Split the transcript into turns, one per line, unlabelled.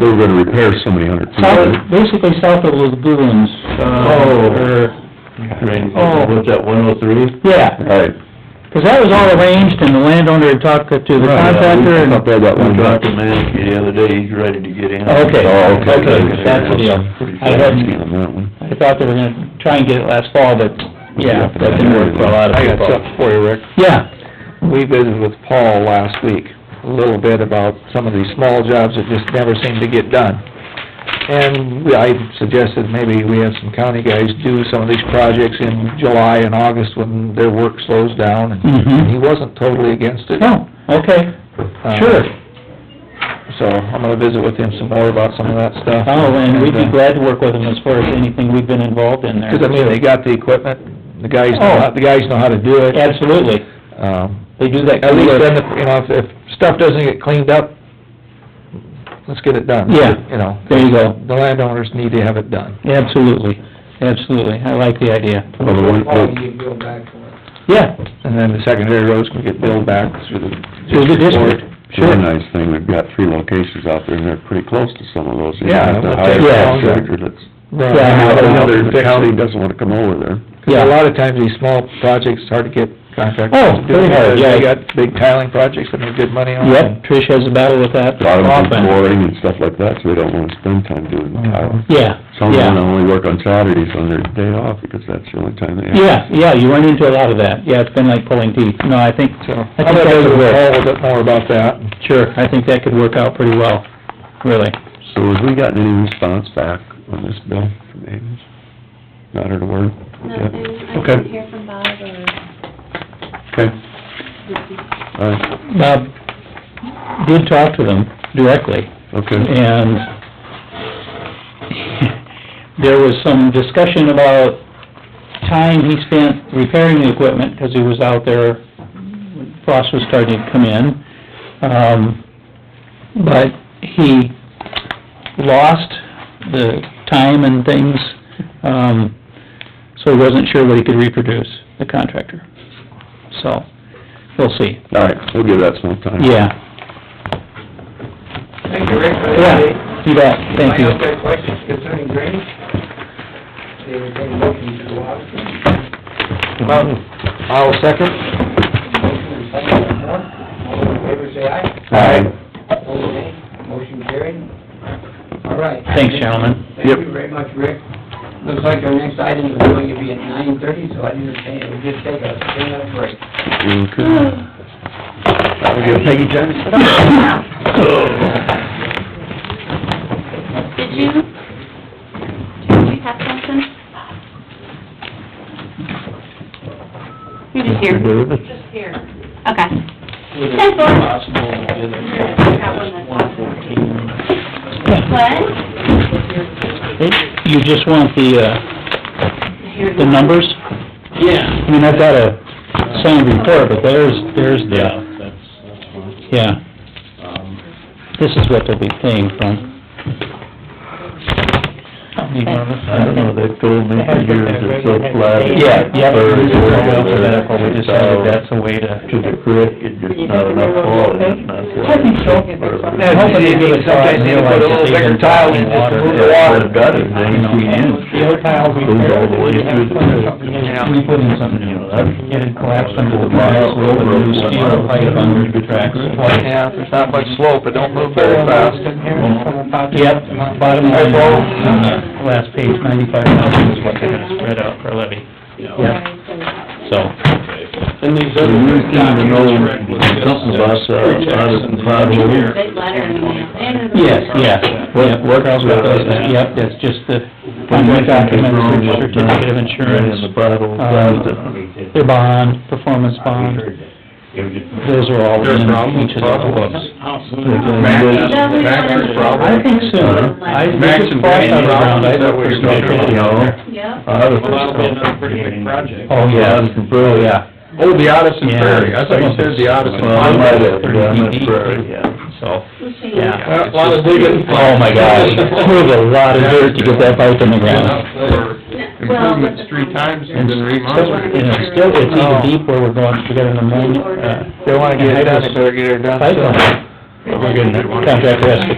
They were gonna repair so many hundred feet.
South, basically south of lagoons,
Oh.
uh, or, Oh.
What's that, one oh three?
yeah,
Right.
'cause that was all arranged and the landowner had talked to the contractor
I
and...
thought they had that
I
one.
talked to Mansky the other day, he's ready to get in.
Okay.
Oh, okay.
That's the deal.
Pretty
I
Yeah,
hadn't,
on that one.
I thought they were gonna try and get it last fall, but, yeah, that didn't work for a lot of
I got
people.
something for you, Rick.
Yeah,
We visited with Paul last week, a little bit about some of these small jobs that just never seem to get done. And we- I suggested maybe we have some county guys do some of these projects in July and August when their work slows down, and he
mhm.
wasn't totally against it.
No, Oh, okay,
Uh,
sure.
So I'm gonna visit with him some more about some of that stuff.
Oh, and we'd be
uh,
glad to work with them as far as anything we've been involved in there.
Because I mean, they got the equipment, the guys
Oh.
know, how- the guys know how to do it.
Absolutely,
Um,
they do that.
At least
kind
then,
of-
if, you know, if, if stuff doesn't get cleaned up, let's get it done.
Yeah.
You know,
There you go,
the landowners need to have it done.
absolutely, absolutely, I like the idea.
Oh,
Well, the one- oh,
All you go back for it.
Yeah,
And then the secondary roads can get billed back through the
Through the
district
district.
court.
The other nice thing, we've got three locations out there, and they're pretty close to some of those.
Yeah,
Even
but
The higher
they-
yeah.
contractor that's,
Right.
Yeah, I know.
another county doesn't wanna come over there.
'Cause
Yeah.
a lot of times, these small projects, it's hard to get contractors
Oh,
to do
very
it,
hard,
because
yeah.
they got big tiling projects that make good money on.
yep, Trish has a battle with that
A lot of them do
often.
flooring and stuff like that, so they don't wanna spend time doing tile.
Yeah,
Some of them
Mm. yeah,
only work on Saturdays on their day off, because that's the only time they have.
yeah, yeah, you run into a lot of that, yeah, it's been like pulling teeth, no, I think,
So,
I
I'm
think
gonna
that
visit
would
with
work,
Paul a bit more about that.
sure, I think that could work out pretty well, really.
So have we gotten any response back on this bill from Ames? Not heard a word?
Nothing, I
Okay.
didn't hear from Bob or
Okay,
Vicki.
all right,
Bob did talk to them directly,
okay.
and there was some discussion about time he spent repairing the equipment, because he was out there, when frost was starting to come in. Um, but he lost the time and things, um, so he wasn't sure what he could reproduce, the contractor. So, we'll see.
All right, we'll give that some time.
Yeah,
Thank you, Rick, for that.
yeah, you bet, thank you.
I have any questions concerning drainage? They were going to look into the water.
I'll second.
Motion and second on that. All in favor, say aye.
Aye.
Opposed, nay. Motion carried. All right.
Thanks, gentlemen.
Thank you very much, Rick. Looks like our next item is going to be at nine thirty, so I understand we'll just take a ten-minute break.
Okay. We'll give Peggy Johnson.
Did you, did you have something? You're just here. Just here. Okay. Ten four. What?
You just want the, uh, the numbers?
Yeah.
I mean, I've got a signed report, but there's, there's the,
that's, that's fine.
yeah,
Um,
this is what they'll be paying from.
I don't know, they told me for years it's so flat. it's
Yeah, yeah, but
third,
we just
fourth,
went over that, but we
it's
decided
out
that's a way to...
To the creek, it's just not enough flow, it's not.
I think so.
Yeah,
Hopefully they do it so I
Sometimes you
realize
put a
that
little
they
bigger
can
tile in
drain
just to
water.
move the
Yeah,
water.
but it does, it ain't seen
The old tiles we
Goes all the way
repaired,
through the
Yeah, we put in something
You
new.
know, that's-
It had collapsed under the tracks, we opened a new steel pipe under the tracks twice.
Yeah, if there's not much slope, it don't move very fast.
Yep, bottom line, on the last page, ninety-five thousand is what they're gonna spread out for levy,
Yeah.
so.
And these other. You seem to know something about, uh, audit and project.
Big letter in the mail. And-
Yes, yeah, yeah, work out with that, yep, that's just the, on my documents, the certificate of
And the
insurance,
bottle.
um, their bond, performance bond, Um, those are all in each of the books. I think so,
uh,
I, this is quite a round, I think we're
You know,
Yep.
audit.
pretty big project.
Oh, yeah, oh, yeah,
Oh, the Addison
Yeah.
Prairie, I thought you said the Addison.
Well, I might have,
Prairie.
yeah, I meant prairie, yeah.
so,
We'll see.
yeah.
A lot of digging.
Oh, my gosh, it was a lot of dirt to get that pipe in the ground.
No, well, but the-
three times
And
and then
still,
remodeled.
you know, still, it's even
Oh.
deep where we're going, we're getting the moon, uh,
They wanna get it done, they better get it done.
pipeline.
We're
Contractor has to